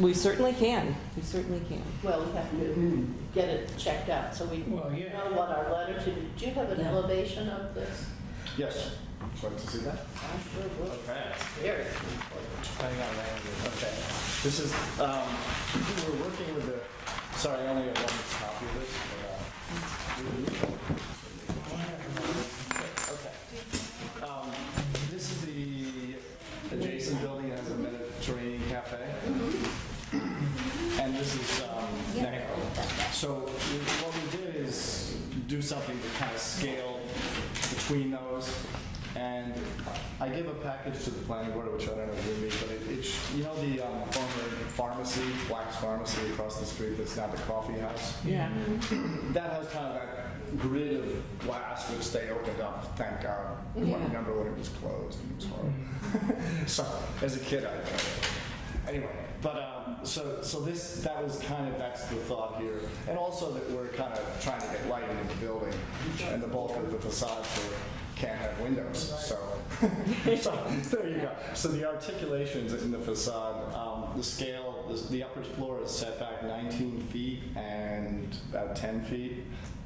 We certainly can, we certainly can. Well, we have to get it checked out, so we know Well, yeah. what our letter to, do you have an Yeah. elevation of this? Yes. Would you like to see that? I sure will. Okay. Very important. Hang on, hang on. Okay. This is, um, we're working with the, sorry, I only have one copy of this. but, uh, Okay. Um, This is the adjacent building that has a Mediterranean cafe. And this is, um, Necco. So what we did is do something to kind of scale between those. And I give a package to the planning board, which I don't know if you read, but it- it's, you know, the um, former pharmacy, Wax Pharmacy across the street that's now the coffee house? Yeah. That has kind of that grid of glass which they opened up, thank God. I Yeah. remember when it was closed and it was horrible. so as a kid, I know. Anyway, but um, so so this that was kind of that's the thought here, and also that we're kind of trying to get lighting in the building, and the bulk of the facades are, can't have windows, so so there you go. So the articulations in the facade, um, the scale, the, the upper floor is set back 19 feet and about 10 feet. You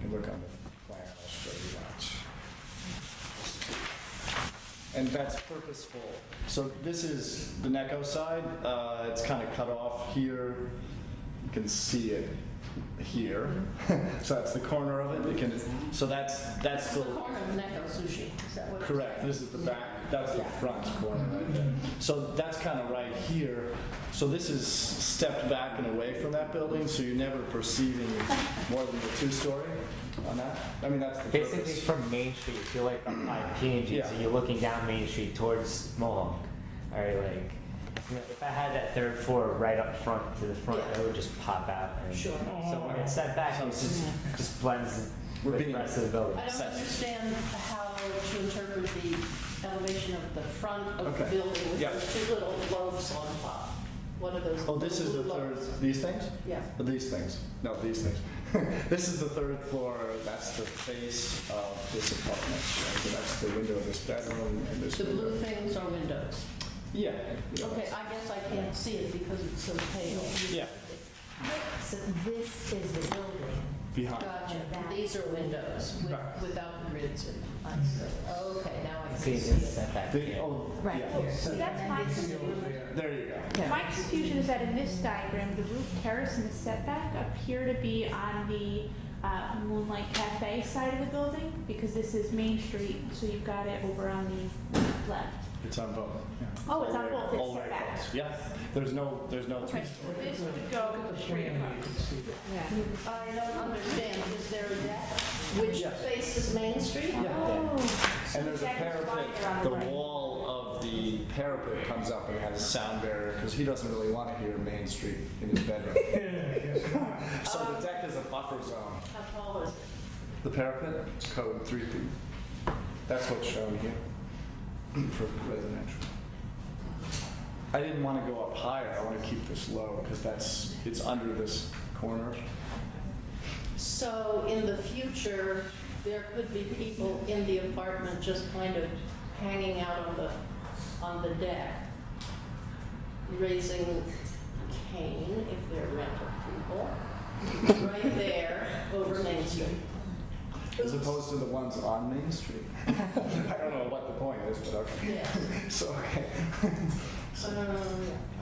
can look on the plan, I'll show you that. And that's purposeful. So this is the Necco side. Uh, it's kind of cut off here. You can see it here. so that's the corner of it. You can. So that's that's It's the corner of Necco Sushi, is that what? it's- Correct, this is the back, that's the front corner right there. So that's kind of right here. So this is stepped back and away from that building, so you're never perceiving more than the two-story on that. I mean, that's the Basically, purpose. from Main Street, if you're like on P and G, Yeah. so you're looking down Main Street towards Mohawk. Or like, you know, if I had that third floor right up front to the front, Yeah. it would just pop out. And Sure. So when it's set back, it just, just blends We're with the being- rest of the building. I don't understand how to interpret the elevation of the front of the Okay. building with Yeah. those two little loaves on top. What are those? Oh, this is the little third, loaves? these things? Oh, Yeah. These things, no, these things. This is the third floor, that's the face of this apartment. right? So that's the window of this bedroom and this The window. blue things are windows. Yeah. yeah. Okay, I guess I can't see it because it's so pale. Yeah, So this is the building. behind. Gotcha. Uh, These are windows with- Right. without grids in them. I see. Okay, now I can See, see it's just it. set back The- here. oh, Right. yeah. So that's my confusion. There you go. Yeah. My confusion is that in this diagram, the roof terrace and the setback appear to be on the uh, Moonlight Cafe side of the building, because this is Main Street, so you've got it over on the left. It's on both. Oh, it's on both, All it's right, setback. folks. Yeah, there's no, there's no Okay, this would go straight across. I don't understand, is there a deck which Yes. faces Main Street? Oh, And there's a Jack is wider parapet, on the the right. wall of the parapet comes up and has a sound barrier, because he doesn't really want to hear Main Street in his bedroom. So the deck is a buffer zone. How tall is it? The parapet, it's code three feet. That's what's shown here for residential. I didn't want to go up higher, I want to keep this low, because that's, it's under this corner. So in the future, there could be people in the apartment just kind of hanging out on the, on the deck, raising cane if they're rental people, right there over Main Street. As opposed to the ones on Main Street. I don't know what the point is, but okay. Yeah. So, okay. Um, I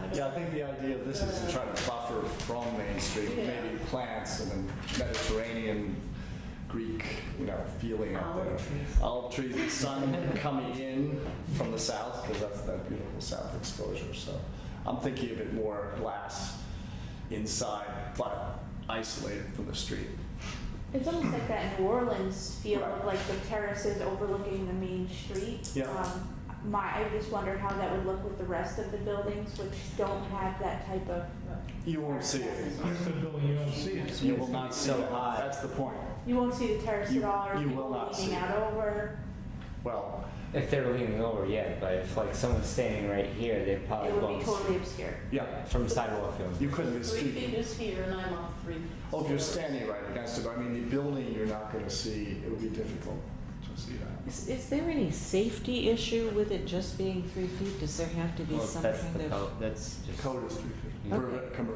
don't- Yeah, I think the idea of this is to try to buffer from Main Street, Yeah. maybe plants and then Mediterranean, Greek, you know, feeling out there. Olive trees, the sun coming in from the south, because that's that beautiful south exposure, so. I'm thinking of it more glass inside, but isolated from the street. It's almost like that New Orleans feel Right. of like the terraces overlooking the main street. Yeah. Um, My, I just wondered how that would look with the rest of the buildings, which don't have that type of. You won't see it. That's the building you don't see. It's- You will not see So that. high. That's the point. You won't see the terrace You- at all, or you will people not see leaning it. out over. Well, If they're leaning over, yeah, but if like someone's standing right here, they Uh, probably It would won't be see- totally obscured. yeah, From sidewalk, it you couldn't be Three feet speaking. is here and I'm off three. Oh, if you're standing right against it, but I mean, the building, you're not going to see, it would be difficult to can see that. Is, is there any safety issue with it just being three feet? Does there have to be Well, some that's kind the of? code. That's just Code is three feet. Yeah. Permit- com-